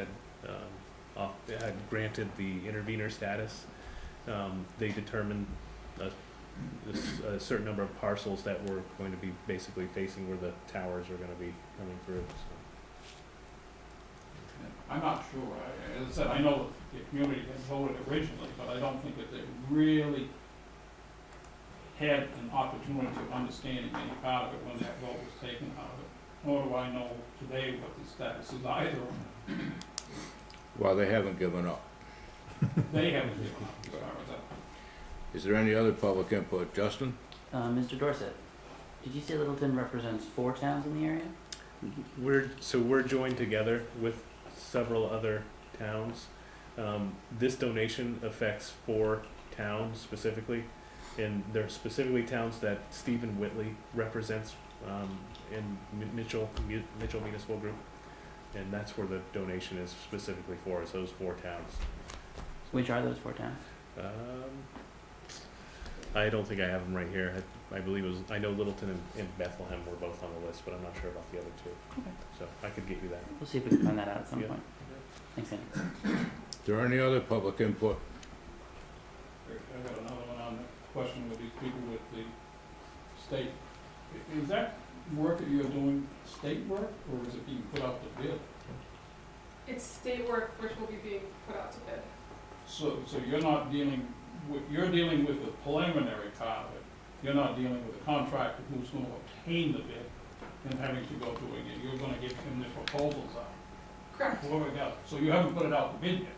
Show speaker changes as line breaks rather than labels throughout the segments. had um, uh, granted the intervener status, um, they determined a, a s- a certain number of parcels that were going to be basically facing where the towers are gonna be coming through, so.
I'm not sure, I, as I said, I know the community had voted originally, but I don't think that they really had an opportunity of understanding any part of it when that vote was taken out of it. Nor do I know today what the status is either,
Well, they haven't given up.
they haven't given up as far as that.
Is there any other public input? Justin?
Uh, Mr. Dorset, did you say Littleton represents four towns in the area?
We're, so we're joined together with several other towns. Um, this donation affects four towns specifically, and they're specifically towns that Stephen Whitley represents, um, in Mi- Mitchell, Mi- Mitchell Municipal Group. And that's where the donation is specifically for, is those four towns.
Which are those four towns?
Um, I don't think I have them right here. I, I believe it was, I know Littleton and, and Bethlehem were both on the list, but I'm not sure about the other two.
Okay.
So I could get you that.
We'll see if we can find that out at some
Yeah.
point. Thanks, Andy.
Is there any other public input?
I got another one on the question with these people with the state. I- Is that work that you're doing state work, or is it being put out to bid?
It's state work which will be being put out to bid.
So, so you're not dealing, with you're dealing with the preliminary part of it. You're not dealing with the contractor who's gonna obtain the bid and having to go doing it. You're gonna give him the proposals out,
Correct?
whoever got it. So you haven't put it out to bid yet,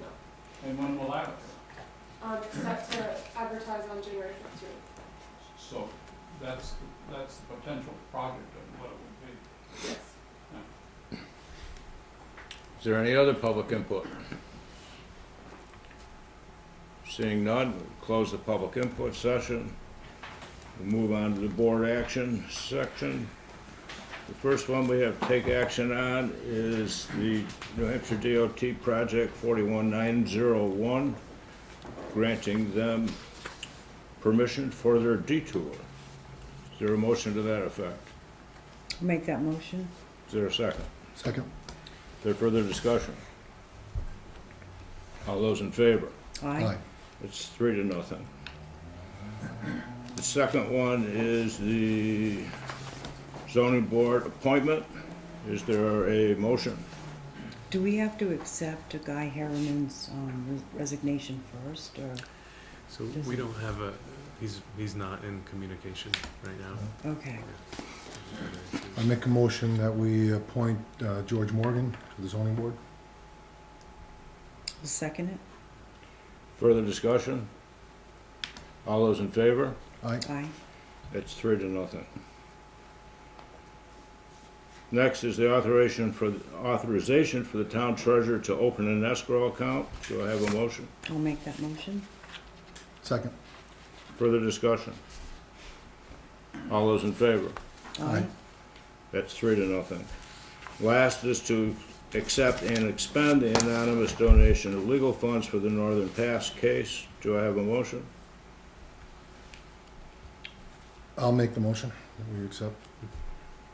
No.
and when will that occur?
Um, it's set to advertise on January fifteenth.
So that's, that's the potential project of what it would be.
Yes.
Is there any other public input? Seeing none, we'll close the public input session. We'll move on to the board action section. The first one we have to take action on is the New Hampshire DOT Project 41901, granting them permission for their detour. Is there a motion to that effect?
Make that motion.
Is there a second?
Second.
Is there further discussion? All those in favor?
Aye.
It's three to nothing. The second one is the zoning board appointment. Is there a motion?
Do we have to accept Guy Harriman's um, res- resignation first, or,
So
Does
we
it-
don't have a, he's, he's not in communication right now.
okay.
I make a motion that we appoint uh, George Morgan to the zoning board.
I'll Second it?
Further discussion? All those in favor?
Aye.
Aye.
It's three to nothing. Next is the authorization for, authorization for the town treasurer to open an escrow account. Do I have a motion?
I'll make that motion.
Second.
Further discussion? All those in favor?
Aye.
That's three to nothing. Last is to accept and expend the anonymous donation of legal funds for the Northern Pass case. Do I have a motion?
I'll make the motion that we accept.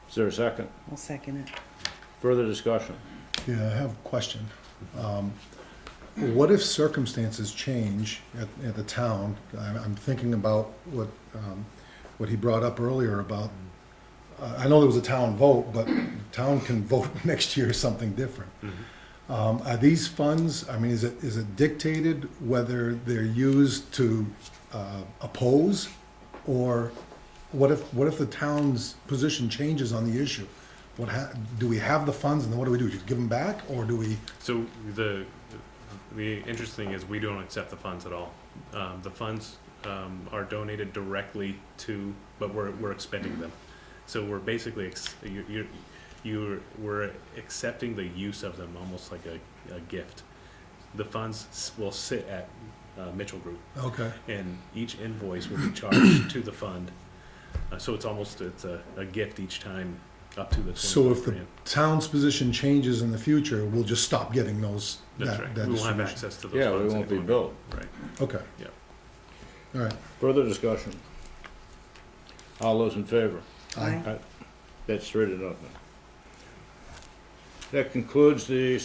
Is there a second?
I'll second it.
Further discussion?
Yeah, I have a question. Um, What if circumstances change at, at the town? I'm, I'm thinking about what, um, what he brought up earlier about, uh, I know there was a town vote, but town can vote next year something different.
Mm-hmm.
Um, are these funds, I mean, is it, is it dictated whether they're used to, uh, oppose? Or what if, what if the town's position changes on the issue? What ha, do we have the funds and then what do we do? Just give them back or do we,
So the, the interesting is we don't accept the funds at all. Um, the funds, um, are donated directly to, but we're, we're expending them. So we're basically, ex- you, you, you're, we're accepting the use of them almost like a, a gift. The funds s- will sit at, uh, Mitchell Group
okay,
and each invoice will be charged to the fund. Uh, so it's almost, it's a, a gift each time up to the
So
twenty-five
if the-
grand.
town's position changes in the future, we'll just stop getting those,
That's
that,
right.
that
We won't have
distribution?
access to those
Yeah, we
funds
won't be
anymore.
billed.
Right.
Okay.
Yeah.
All right.
Further discussion? All those in favor?
Aye.
That's three to nothing. That concludes the